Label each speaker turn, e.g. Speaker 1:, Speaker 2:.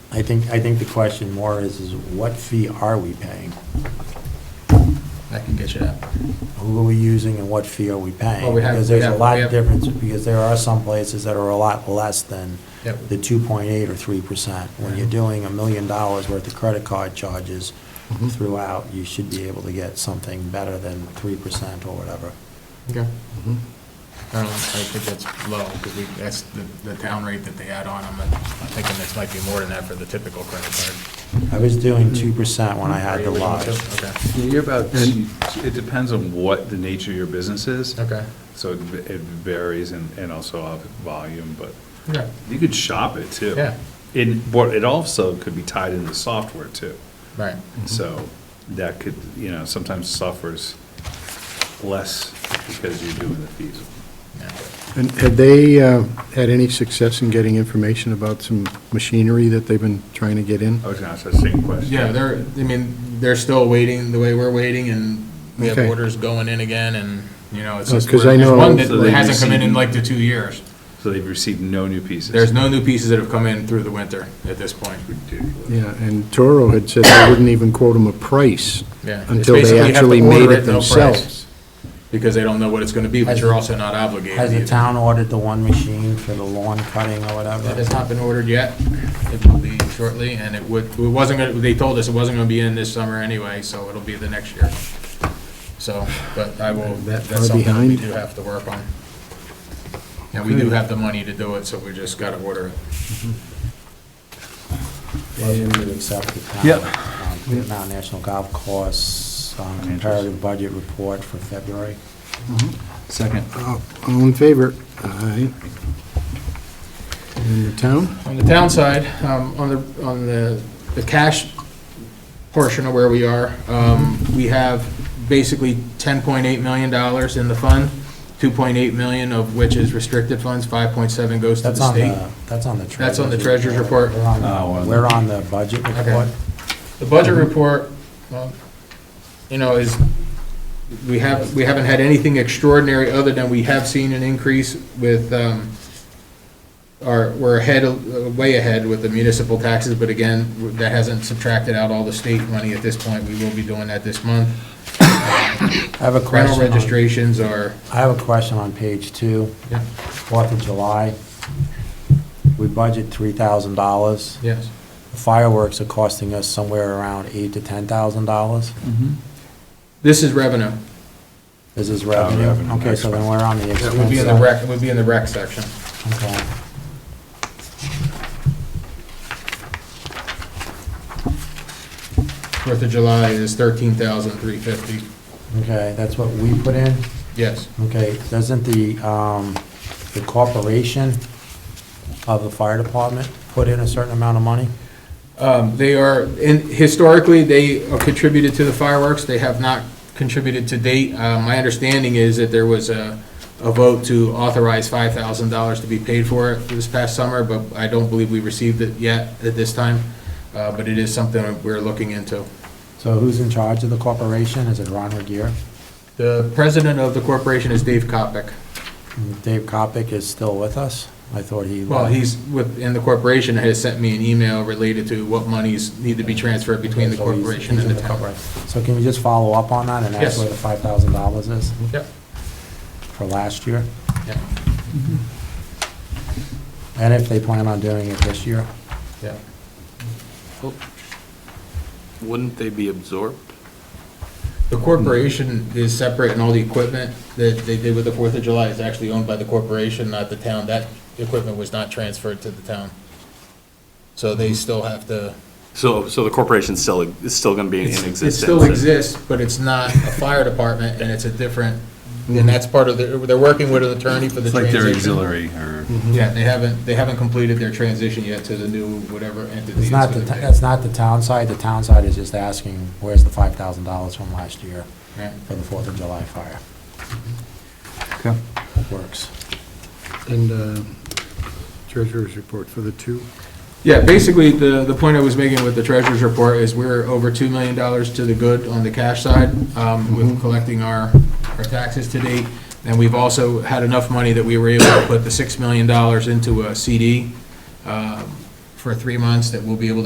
Speaker 1: I think, I think the question more is, is what fee are we paying?
Speaker 2: I can get you that.
Speaker 1: Who are we using and what fee are we paying?
Speaker 2: Well, we have-
Speaker 1: Because there's
Speaker 2: we
Speaker 1: a
Speaker 2: have-
Speaker 1: lot
Speaker 2: we
Speaker 1: of
Speaker 2: have-
Speaker 1: difference, because there are some places that are a lot less than
Speaker 2: Yep.
Speaker 1: the 2.8 or 3%. When you're doing a million dollars worth of credit card charges
Speaker 2: Mhm.
Speaker 1: throughout, you should be able to get something better than 3% or whatever.
Speaker 2: Okay. Mm-hmm. I don't, I think that's low, because we, that's the, the town rate that they add on them, and I'm thinking this might be more than that for the typical credit card.
Speaker 1: I was doing 2% when I had
Speaker 2: Are
Speaker 1: the
Speaker 2: you
Speaker 1: lodge.
Speaker 2: original too? Okay,
Speaker 3: Yeah, You're about, it depends on what the nature of your business is.
Speaker 2: okay,
Speaker 3: So it v- it varies and, and also of volume, but
Speaker 2: okay,
Speaker 3: you could shop it too.
Speaker 2: Yeah.
Speaker 3: And, but it also could be tied into software too.
Speaker 2: right.
Speaker 3: So that could, you know, sometimes software's less because you're doing the fees.
Speaker 2: Yeah.
Speaker 4: And had they uh, had any success in getting information about some machinery that they've been trying to get in?
Speaker 3: I was gonna ask that same question.
Speaker 2: Yeah, they're, I mean, they're still waiting the way we're waiting, and we have
Speaker 4: Okay.
Speaker 2: orders going in again, and, you know, it's just,
Speaker 4: 'Cause I
Speaker 2: there's
Speaker 4: know-
Speaker 2: one that
Speaker 3: So they
Speaker 2: hasn't come in in
Speaker 3: received-
Speaker 2: like the two years.
Speaker 3: So they've received no new pieces.
Speaker 2: There's no new pieces that have come in through the winter at this point,
Speaker 3: Ridiculous.
Speaker 4: Yeah, and Toro had said they wouldn't even quote them a price
Speaker 2: yeah. It's
Speaker 4: until
Speaker 2: basically
Speaker 4: they
Speaker 2: you have to
Speaker 4: actually made
Speaker 2: order
Speaker 4: it
Speaker 2: at no price,
Speaker 4: themselves.
Speaker 2: Because they don't know what it's gonna be, but
Speaker 1: Has-
Speaker 2: you're also not obligated.
Speaker 1: Has the
Speaker 2: either.
Speaker 1: town ordered the one machine for the lawn cutting or whatever?
Speaker 2: It has not been ordered yet. It will be shortly, and it would, it wasn't gonna, they told us it wasn't gonna be in this summer anyway, so it'll be the next year. So, but I will,
Speaker 4: That
Speaker 2: that's
Speaker 4: far
Speaker 2: something that we
Speaker 4: behind?
Speaker 2: do have to work on. And we do have the money to do it, so we just gotta order it.
Speaker 1: Motion to accept the town,
Speaker 3: Yep.
Speaker 1: um, Vietnam National Golf Course um,
Speaker 3: Financials.
Speaker 1: comparative budget report for February.
Speaker 3: Second.
Speaker 4: Oh, All in favor? Aye. And the town?
Speaker 2: On the town side, um, on the, on the, the cash portion of where we are, um, we have basically ten point eight million dollars in the fund, two point eight million of which is restricted funds, five point seven goes to the
Speaker 1: That's on
Speaker 2: state.
Speaker 1: the, that's on the treasurer's.
Speaker 2: That's on the treasurer's report.
Speaker 1: We're on the-
Speaker 3: Oh, well.
Speaker 1: We're on the budget
Speaker 2: Okay.
Speaker 1: report.
Speaker 2: The budget report, well, you know, is, we have, we haven't had anything extraordinary other than we have seen an increase with, um, our, we're ahead, of- way ahead with the municipal taxes, but again, that hasn't subtracted out all the state money at this point. We will be doing that this month.
Speaker 1: I have a
Speaker 2: Rental
Speaker 1: question, on-
Speaker 2: registrations are,
Speaker 1: I have a question on page two,
Speaker 2: Yeah.
Speaker 1: Fourth of July. We budget $3,000.
Speaker 2: yes,
Speaker 1: Fireworks are costing us somewhere around $8,000 to $10,000.
Speaker 2: this is revenue.
Speaker 1: This is revenue.
Speaker 3: revenue,
Speaker 1: Okay, so then we're on the expense
Speaker 2: That would be in the
Speaker 1: side.
Speaker 2: rec, it would be in the rec section.
Speaker 1: Okay.
Speaker 2: Fourth of July is thirteen thousand three fifty,
Speaker 1: Okay, that's what we put in?
Speaker 2: yes.
Speaker 1: Okay, doesn't the, um, the corporation of the fire department put in a certain amount of money?
Speaker 2: Um, They are, and historically, they contributed to the fireworks, they have not contributed to date. Uh, My understanding is that there was a, a vote to authorize five thousand dollars to be paid for it this past summer, but I don't believe we received it yet at this time, Uh, but it is something we're looking into.
Speaker 1: So who's in charge of the corporation? Is it Ron Regier?
Speaker 2: The president of the corporation is Dave Kopic.
Speaker 1: Dave Kopic is still with us? I thought he.
Speaker 2: Well, he's with, and the corporation has sent me an email related to what monies need to be transferred between the
Speaker 1: So he's-
Speaker 2: corporation
Speaker 1: he's
Speaker 2: and
Speaker 1: in
Speaker 2: the town.
Speaker 1: corporation. So can you just follow up on that and
Speaker 2: Yes.
Speaker 1: ask where the five thousand dollars is
Speaker 2: Yep,
Speaker 1: for last year?
Speaker 2: yep,
Speaker 1: And if they plan on doing it this year?
Speaker 2: yep.
Speaker 5: Wouldn't they be absorbed?
Speaker 2: The corporation is separate, and all the equipment that they did with the Fourth of July is actually owned by the corporation, not the town. That equipment was not transferred to the town. So they still have to,
Speaker 5: So, so the corporation's still, is still gonna be in existence?
Speaker 2: it still exists, but it's not a fire department, and it's a different, and that's part of, the. they're working with an attorney for the
Speaker 3: It's like
Speaker 2: transition.
Speaker 3: their auxiliary or.
Speaker 2: Yeah, they haven't, they haven't completed their transition yet to the new whatever entity.
Speaker 1: It's not, the
Speaker 2: gonna
Speaker 1: t-
Speaker 2: be.
Speaker 1: that's not the town side. The town side is just asking, where's the five thousand dollars from last year
Speaker 2: Right.
Speaker 1: for the Fourth of July fire?
Speaker 3: Okay.
Speaker 1: Works.
Speaker 4: And uh, treasurer's report for the two?
Speaker 2: Yeah, basically, the, the point I was making with the treasurer's report is we're over $2 million to the good on the cash side um, with collecting our, our taxes to date. And we've also had enough money that we were able to put the $6 million into a CD um, for uh, three months that we'll be able to